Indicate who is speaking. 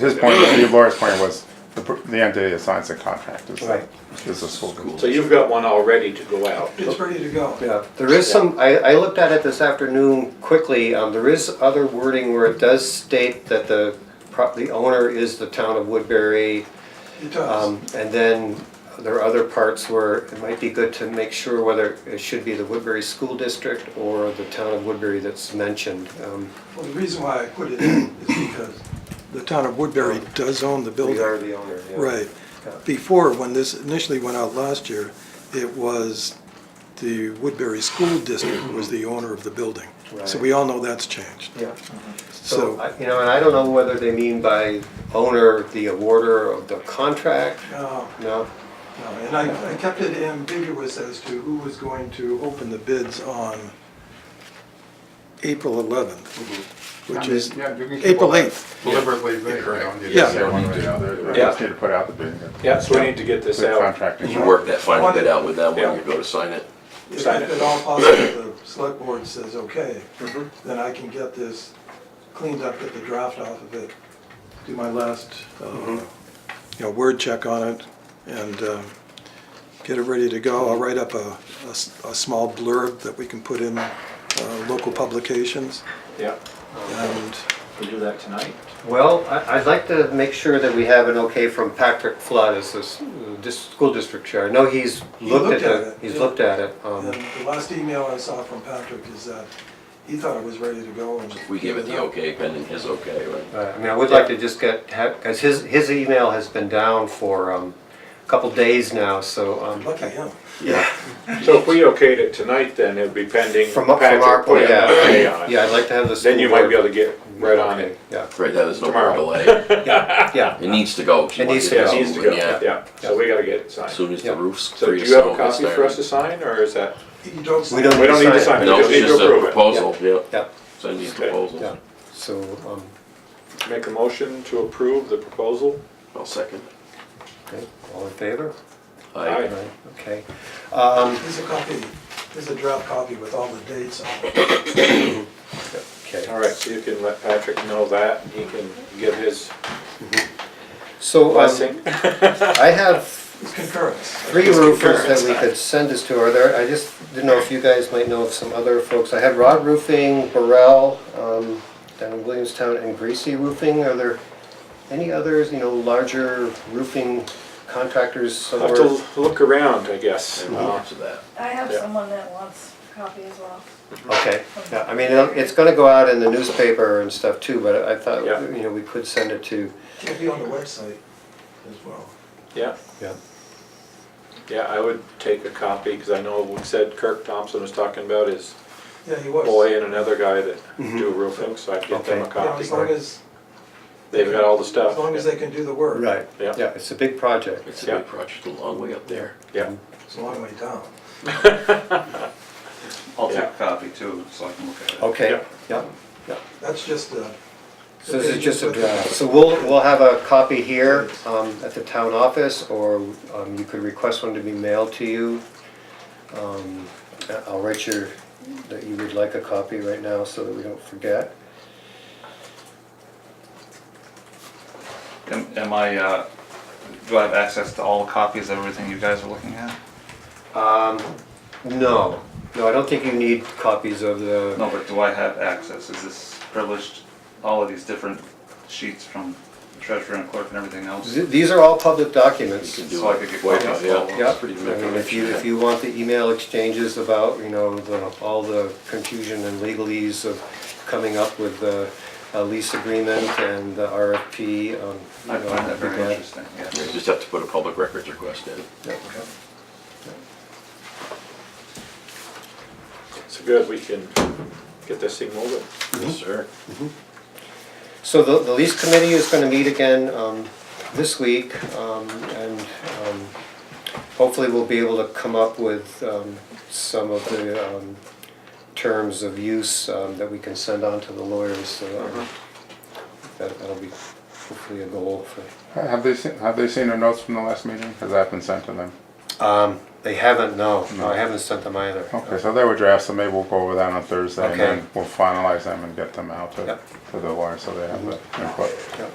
Speaker 1: His point, the lawyer's point was, the, per- the entity that signs the contract is,
Speaker 2: Right.
Speaker 1: is the school.
Speaker 3: So you've got one all ready to go out.
Speaker 4: It's ready to go.
Speaker 2: Yeah, there is some, I, I looked at it this afternoon quickly, um, there is other wording where it does state that the, pro- the owner is the town of Woodbury.
Speaker 4: It does.
Speaker 2: Um, and then there are other parts where it might be good to make sure whether it should be the Woodbury School District or the town of Woodbury that's mentioned. Um,
Speaker 4: Well, the reason why I put it in is because the town of Woodbury does own the
Speaker 2: Oh. We are
Speaker 4: building.
Speaker 2: the owner, yeah.
Speaker 4: Right.
Speaker 2: Yeah.
Speaker 4: Before, when this initially went out last year, it was the Woodbury School District was the owner of the building. So
Speaker 2: Right.
Speaker 4: we all know that's changed.
Speaker 2: Yeah, so,
Speaker 4: So,
Speaker 2: I- you know, and I don't know whether they mean by owner, the awarder of the contract,
Speaker 4: no,
Speaker 2: no?
Speaker 4: Uh, no, and I, I kept it ambiguous as to who was going to open the bids on April 11th,
Speaker 2: Mm-hmm.
Speaker 4: which is April 8th.
Speaker 1: Deliberately vague, you
Speaker 4: Yeah.
Speaker 1: just say one way or the other,
Speaker 3: Yeah.
Speaker 1: just need to put out the bidding.
Speaker 3: Yeah, so we need to get this
Speaker 1: The
Speaker 3: out.
Speaker 1: contract.
Speaker 5: You work that final bit out with that
Speaker 3: Yeah.
Speaker 5: when you go to sign it.
Speaker 4: If
Speaker 3: Sign it.
Speaker 4: at all possible, the select board says, okay,
Speaker 5: Mm-hmm.
Speaker 4: then I can get this cleaned up, get the draft off of it, do my last, uh, you
Speaker 5: Mm-hmm.
Speaker 4: know, word check on it, and um, get it ready to go. I'll write up a, a s- a small blurb that we can put in uh, local publications,
Speaker 3: Yeah,
Speaker 4: and,
Speaker 3: we do that tonight.
Speaker 2: Well, I- I'd like to make sure that we have an okay from Patrick Flood as this, this school district chair. I know he's
Speaker 4: He
Speaker 2: looked at
Speaker 4: looked at
Speaker 2: it,
Speaker 4: it,
Speaker 2: he's
Speaker 4: yeah.
Speaker 2: looked at it. um,
Speaker 4: and the last email I saw from Patrick is that he thought it was ready to go. and-
Speaker 5: We give it the okay pending his okay, right?
Speaker 2: Right, I mean, I would like to just get, because his, his email has been down for um, a couple days now, so. um,
Speaker 4: Lucky him.
Speaker 2: Yeah.
Speaker 3: So if we okayed it tonight, then it'd be pending.
Speaker 2: From up from our
Speaker 3: Patrick putting
Speaker 2: point,
Speaker 3: the pay
Speaker 2: yeah.
Speaker 3: on
Speaker 2: Yeah,
Speaker 3: it.
Speaker 2: I'd like to have the school
Speaker 3: Then you might be
Speaker 2: board-
Speaker 3: able to get right on it.
Speaker 2: Yeah,
Speaker 5: Right, that is no more
Speaker 3: Tomorrow.
Speaker 5: delay.
Speaker 2: yeah, yeah.
Speaker 5: It needs to go. She
Speaker 2: It needs
Speaker 5: wants
Speaker 2: to
Speaker 3: Yeah,
Speaker 2: go.
Speaker 3: it needs to go,
Speaker 5: Yeah.
Speaker 3: yeah. So we gotta get it
Speaker 5: As
Speaker 3: signed.
Speaker 5: soon as
Speaker 2: Yeah.
Speaker 5: the roof's
Speaker 3: So do
Speaker 5: clear.
Speaker 3: you have a
Speaker 5: snow gets
Speaker 3: copy for
Speaker 5: there.
Speaker 3: us to sign, or is that?
Speaker 4: You don't sign
Speaker 2: We don't
Speaker 4: it.
Speaker 3: We don't need to sign it,
Speaker 5: No,
Speaker 3: we just
Speaker 5: it's
Speaker 3: need to
Speaker 5: just a
Speaker 3: approve it.
Speaker 5: proposal, yeah.
Speaker 2: Yeah,
Speaker 5: Send these
Speaker 3: Okay.
Speaker 2: yeah.
Speaker 5: proposals.
Speaker 2: So, um,
Speaker 3: Make a motion to approve the proposal?
Speaker 5: I'll second.
Speaker 2: okay, all in favor?
Speaker 3: Aye.
Speaker 5: I,
Speaker 2: Right, Okay. Um,
Speaker 4: Here's a copy, here's a draft copy with all the dates on it.
Speaker 2: Okay.
Speaker 3: All right, so you can let Patrick know that, he can give his
Speaker 2: So um,
Speaker 3: blessing.
Speaker 2: I have
Speaker 4: It's concurrence.
Speaker 2: three
Speaker 3: Just
Speaker 2: roofers that we
Speaker 3: concurrence.
Speaker 2: could send this to. Are there, I just didn't know if you guys might know of some other folks. I had Rod Roofing, Burrell, um, down in Williamstown, and Greasy Roofing. Are there any others, you know, larger roofing contractors
Speaker 3: Have
Speaker 2: somewhere?
Speaker 3: to look around, I guess.
Speaker 5: I'm
Speaker 3: Uh,
Speaker 5: off to that.
Speaker 6: I have
Speaker 3: Yeah.
Speaker 6: someone that wants a copy as well.
Speaker 2: Okay, yeah, I mean, it'll- it's gonna go out in the newspaper and stuff too, but I thought,
Speaker 3: Yeah.
Speaker 2: you know, we could send it to.
Speaker 4: It'll be on the website as well.
Speaker 3: Yeah,
Speaker 2: Yeah.
Speaker 3: yeah, I would take a copy, because I know we said Kirk Thompson was talking about his
Speaker 4: Yeah, he was.
Speaker 3: boy and another guy that do roofing, so I'd get them
Speaker 2: Mm-hmm.
Speaker 3: a
Speaker 2: Okay.
Speaker 4: You know,
Speaker 3: copy.
Speaker 4: As long as,
Speaker 3: They've got all the stuff.
Speaker 4: as long as they can do the work.
Speaker 2: Right,
Speaker 3: Yeah.
Speaker 2: yeah, it's a big project.
Speaker 5: It's a
Speaker 3: Yeah.
Speaker 5: big project, a long way up there.
Speaker 3: Yeah,
Speaker 4: It's a long way down.
Speaker 7: I'll take
Speaker 3: Yeah.
Speaker 7: a copy too, so I can look at it.
Speaker 2: Okay,
Speaker 3: Yeah.
Speaker 2: yeah, yeah.
Speaker 4: That's just the.
Speaker 2: So this is just a draft. So we'll, we'll have a copy here um, at the town office, or um, you could request one to be mailed to you. Um, I- I'll write your, that you would like a copy right now so that we don't forget.
Speaker 7: Am, am I, uh, do I have access to all the copies of everything you guys are looking at?
Speaker 2: Um, No, no, I don't think you need copies of the,
Speaker 7: No, but do I have access? Is this privileged, all of these different sheets from treasurer and clerk and everything else?
Speaker 2: th- these are all public documents.
Speaker 5: You can
Speaker 7: So I
Speaker 5: do
Speaker 7: could get
Speaker 5: it. Way
Speaker 7: copies
Speaker 5: out,
Speaker 7: of all of
Speaker 5: Yeah,
Speaker 7: them.
Speaker 2: Yeah,
Speaker 5: It's pretty
Speaker 2: I mean, if you, if you want the email exchanges about, you know, the, all the confusion and legalese of coming up with the uh, lease agreement and the RFP, um, you
Speaker 7: I
Speaker 2: know,
Speaker 7: find
Speaker 2: I'd
Speaker 7: that
Speaker 2: be
Speaker 7: very
Speaker 2: glad-
Speaker 7: interesting, yeah.
Speaker 5: You just have to put a public records request in.
Speaker 2: yeah.
Speaker 3: so good, we can get this thing moving.
Speaker 5: Yes, sir.
Speaker 2: So the, the lease committee is gonna meet again, um, this week, um, and, um, hopefully we'll be able to come up with, um, some of the, um, terms of use, um, that we can send on to the lawyers, so, um, that, that'll be hopefully a goal for,
Speaker 1: Have they seen, have they seen the notes from the last meeting? Has that been sent to them?
Speaker 2: um, they haven't, no, no, I haven't sent them either.
Speaker 1: Okay, so they were drafts, so maybe we'll go over that on Thursday and
Speaker 2: Okay.
Speaker 1: then we'll finalize them and get them out to,
Speaker 2: Yep.
Speaker 1: to the lawyer so they have the input.
Speaker 2: Yep.